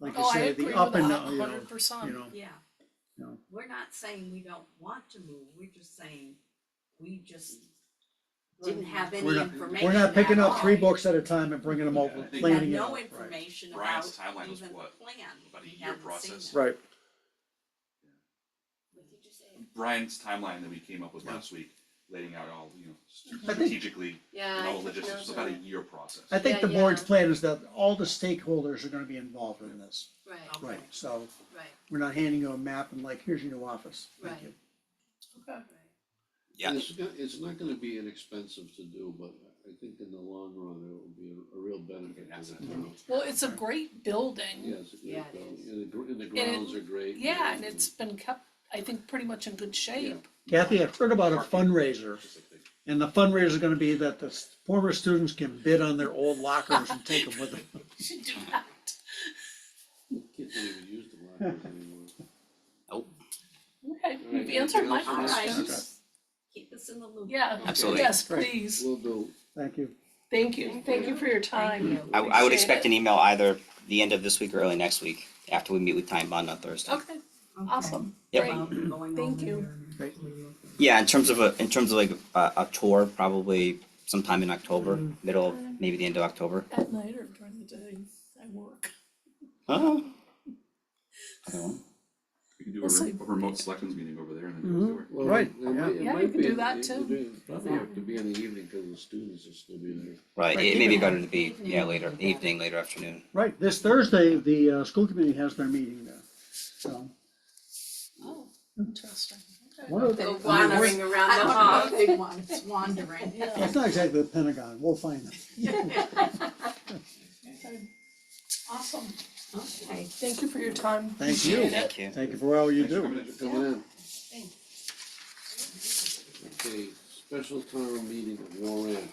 want to Oh, I say agree the with up and that down, you know, 100%. you know, Yeah, you know. we're not saying we don't want to move, we're just saying, we just didn't have any We're not- information We're not picking at up three all. books at a time and bringing them over, Yeah, I think- We had planning it no out. information about Brian's timeline was even the plan. what? About a We year hadn't seen process? it. Right, What did you say? Brian's timeline that we came up with last week, laying out all, you know, I think- strategically, Yeah. and I all the took logistics, notes it's on about a that. year process. I think Yeah, the board's yeah. plan is that all the stakeholders are gonna be involved in this, Right, right, so right, we're not handing you a map and like, here's your new office, thank Right. you. Okay. And It's, go- it's not gonna be inexpensive to do, but I think in the long run, it will be a, a real benefit to the Asset. town. Well, it's a great building. Yes, Yeah, it is. and the, gr- and the it- grounds are great. Yeah, and it's been kept, I think, pretty much in good shape. Kathy, I've heard about a Parking. fundraiser, Just like the- and the fundraiser is gonna be that the s- former students can bid on their old lockers and take them with them. Should do that. Kids don't even use the lockers anymore. Okay, you've anything answered my else on All this? right, questions. just keep us in the loop. Yeah, Absolutely. yes, please. Will do. Thank you. Thank you, thank you for your time. I, I would Appreciate expect it. an email either the end of this week or early next week after we meet with Time Bond on Thursday. Okay, Okay. awesome, Yep. great. Well, going Thank over you. there. Yeah, in terms of a, in terms of like a, a tour, probably sometime in October, middle of maybe the end of October. At night or during the day, I work. Oh. Okay, well. We can do We'll a see. re- a remote selections meeting over there and then Mm-hmm. go over. Well, Right, it might- yeah. it Yeah, you might could be do in- that it too. would be- Probably have to be in the evening, cause the students will still be there. Right, Right, it may be even better to like be, evening yeah, would later, be better. evening, later afternoon. Right, this Thursday, the, uh, school committee has their meeting there, so. Oh, interesting. Okay. One of the- Go I mean, wandering around I the don't hall. know if they want, it's wandering. Yeah. It's not exactly the Pentagon, we'll find them. Okay. Awesome, Okay. thank you for your time. Thank you. Appreciate it. Thank you. Thank you for all you Thanks for coming do. Come in. on. Thanks. Okay, special town meeting warrant.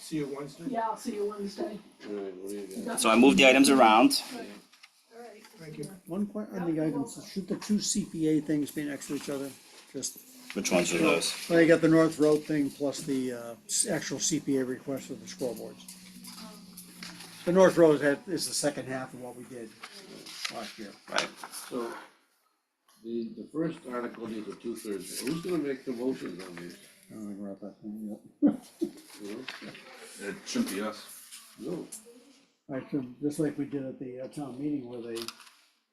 See you Wednesday. Yeah, I'll see you Wednesday. Alright, what do you got? So I moved the items around. All right. Thank you. One que, I think I can, should the two CPA things be next to each other? Just, Which ones are those? well, you got the North Road thing plus the, uh, s- actual CPA request of the scoreboards. The North Road had, is the second half of what we did last year. Right. So, the, the first article needs a two thirds, who's gonna make the motions on this? I don't think we're at that point yet. You It shouldn't be us. know, no, I can, just like we did at the uh, town meeting where they,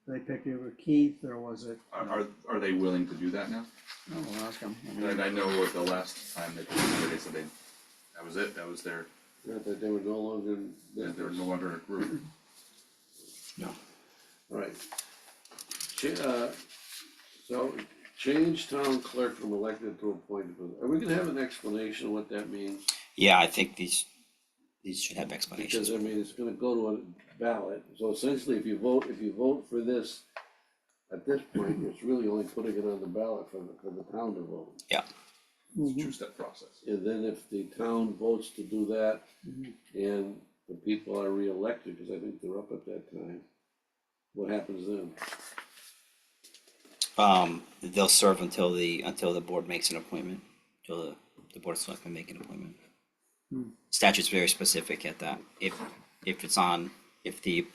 they picked over Keith, or was it? Oh, Are, are, are they willing to do that now? No, I'll ask him. I mean, And I know what the last time they, did, they said they, that was it, that was their, not that they were no longer. in that they were business. no longer a group. Right. Cha- uh, so, change town clerk from elected to appointed, are we gonna have an explanation of what that means? Yeah, I think these, these should have explanations. Because I mean, it's gonna go to a ballot, so essentially, if you vote, if you vote for this, at this point, it's really only putting it on the ballot for the, for the town to vote. It's Mm-hmm. a two-step process. And then if the town votes to do that, Mhm. and the people are reelected, because I think they're up at that time, what happens then? Um, they'll serve until the, until the board makes an appointment, till the, the board of selectmen make an appointment. Statute's very specific at that, if, if it's on, if the,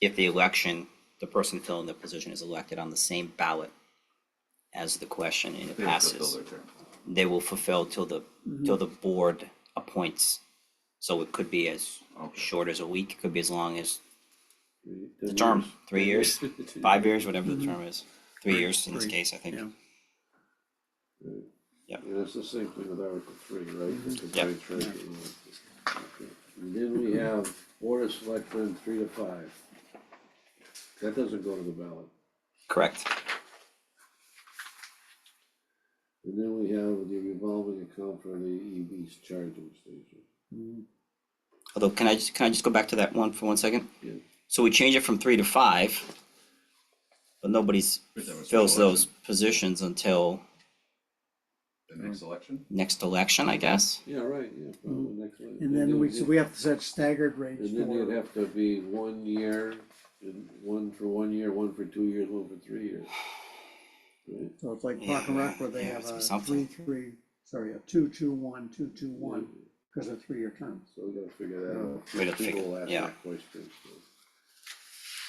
if the election, the person filling the position is elected on the same ballot as the question and it They have to fill passes, their term. they will fulfill till the, till the board appoints. So it could be as Okay. short as a week, it could be as long as Three- the ten term, years? three Ten years, five years, whatever the term is, three Three- years in this three, case, I think. yeah. And it's the same thing with Article three, right? Mm-hmm. With the Yep. combined treasurer, right? Okay. And Then we have Board of Selectmen, three to five. That doesn't go to the ballot. Correct. And then we have the revolving account for the EV's charging station. Although, can I just, can I just go back to that one for one second? Yeah. So we change it from three to five, but nobody's But that was fills the those positions until The next election? next election, I guess. Yeah, right, yeah, probably next one. And then we, so we have to set staggered rates And then it'd for, have to be one year, and one for one year, one for two years, one for three years. Right, so it's like Yeah, Park and Rec where they yeah, have it's a three, something. three, sorry, a two, two, one, two, two, one, because of three-year terms. so we gotta figure that out. Hmm. We gotta figure- People will ask yeah. that question, so.